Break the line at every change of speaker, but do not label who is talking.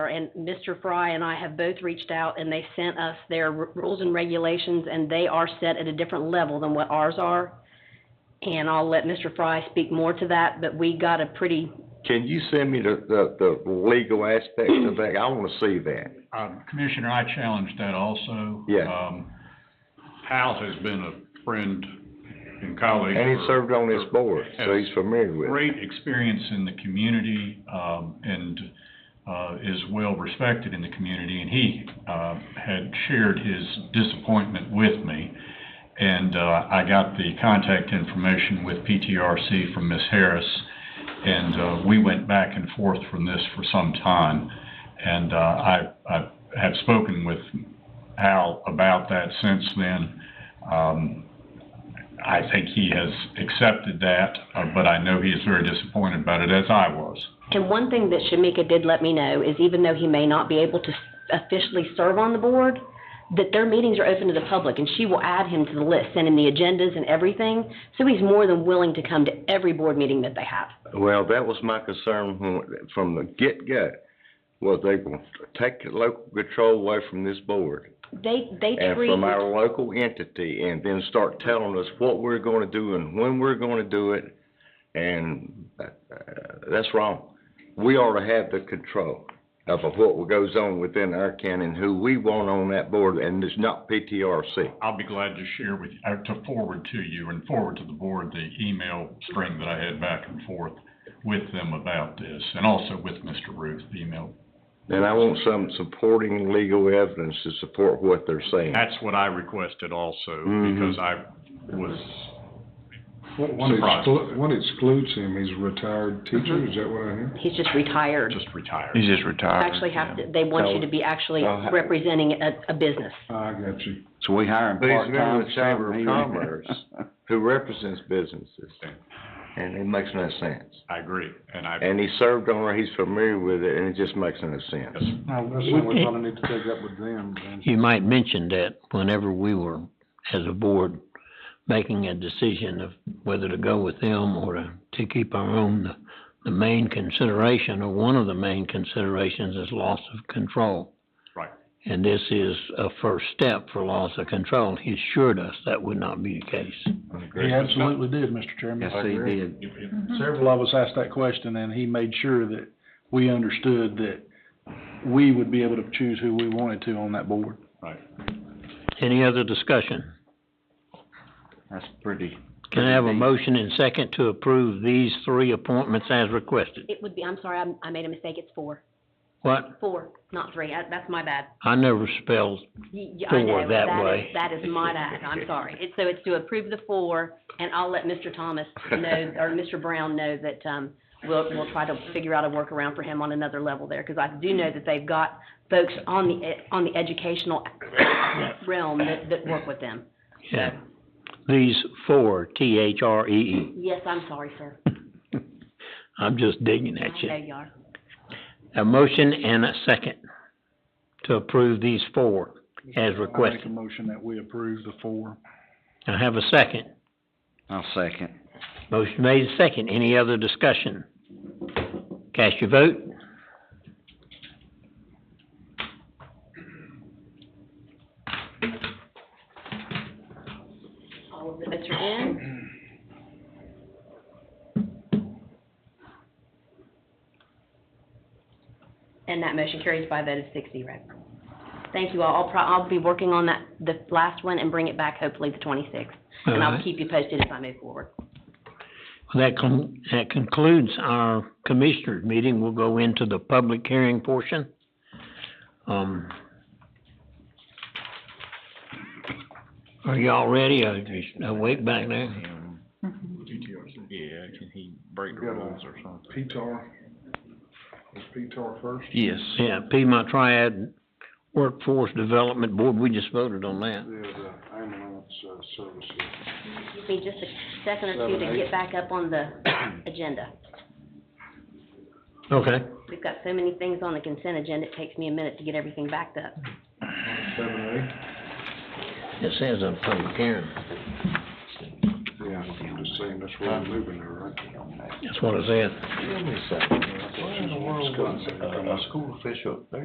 and Mr. Fry and I have both reached out, and they sent us their r- rules and regulations, and they are set at a different level than what ours are. And I'll let Mr. Fry speak more to that, but we got a pretty,
Can you send me the, the, the legal aspects of that? I wanna see that.
Uh, Commissioner, I challenged that also.
Yeah.
Um, Hal has been a friend and colleague.
And
for-
he served on this board, so he's familiar with it.
Great experience in the community, um, and, uh, is well respected in the community, and he, uh, had shared his disappointment with me. And, uh, I got the contact information with PTRC from Ms. Harris, and, uh, we went back and forth from this for some time. And, uh, I, I have spoken with Al about that since then. Um, I think he has accepted that, uh, but I know he is very disappointed about it, as I was.
and one thing that Shamika did let me know is even though he may not be able to officially serve on the board, that their meetings are open to the public, and she will add him to the list, send him the agendas and everything, so he's more than willing to come to every board meeting that they have.
Well, that was my concern from- from the get-go, was they gonna take local control away from this board
They, they
and
treat.
from our local entity, and then start telling us what we're gonna do and when we're gonna do it, and, uh, that's wrong. We ought to have the control of what goes on within our county and who we want on that board, and it's not PTRC.
I'll be glad to share with, uh, to forward to you and forward to the board the email string that I had back and forth with them about this, and also with Mr. Ruth, the email.
And I want some supporting legal evidence to support what they're saying.
That's what I requested also,
Mm-hmm.
Mhm.
because I was
One- One
Surprise.
exclu- one excludes him, he's a retired teacher, is that what I hear?
He's just retired.
just retired.
He's just retired.
actually have to, they want you to be actually
Oh, how-
representing a, a business.
I got you.
So we hire him
But he's a
part-time.
member of the Chamber of
something, he-
Commerce who represents businesses, and it makes no sense.
I agree, and I,
And he served on it, he's familiar with it, and it just makes no sense.
Now, that's something we're gonna need to take up with them, then.
You might mention that whenever we were, as a board, making a decision of whether to go with them or to, to keep our own, the, the main consideration, or one of the main considerations is loss of control.
Right.
And this is a first step for loss of control. He assured us that would not be the case.
He absolutely did, Mr. Chairman.
Yes, he did.
Several of us asked that question, and he made sure that we understood that we would be able to choose who we wanted to on that board.
Any other discussion?
That's pretty.
Can I have a motion and second to approve these three appointments as requested?
It would be, I'm sorry, I, I made a mistake, it's four.
What?
Four, not three, I, that's my bad.
I never spelled
Y- y- I know,
Four, that
is-
way.
That is my bad, I'm sorry. It's, so it's to approve the four, and I'll let Mr. Thomas know, or Mr. Brown know that, um, we'll, we'll try to figure out a workaround for him on another level there, because I do know that they've got folks on the, e- on the educational realm that, that work with them.
Yeah. These four, T H R E E.
Yes, I'm sorry, sir.
I'm just digging at
I know
you.
you are.
A motion and a second to approve these four as
I make a
requested.
motion that we approve the four.
I have a second.
I'll second.
Motion made, second. Any other discussion? Cast your vote.
All of the votes are in. And that motion carries by a vote of six zero. Thank you all. I'll pro, I'll be working on that, the last one and bring it back hopefully the twenty-sixth. And I'll
Alright.
keep you posted as I move forward.
That con- that concludes our commissioners' meeting. We'll go into the public hearing portion. Um, are y'all ready? Are you awake back there?
Yeah, can he break the
Got a- rules
or something?
PTAR, was PTAR first?
Yes.
Yeah, Piedmont Triad Workforce Development Board, we just voted on
Yeah,
that.
the ambulance uh, services.
Give me just a second or two to
Seven,
get
eight.
back up on the agenda.
Okay.
We've got so many things on the consent agenda, it takes me a minute to get everything backed up.
Seven,
It says a public hearing.
eight? Yeah. just saying that's where I'm moving there, right?
That's what I said.
Give me a second. What in the world would, uh, a school official,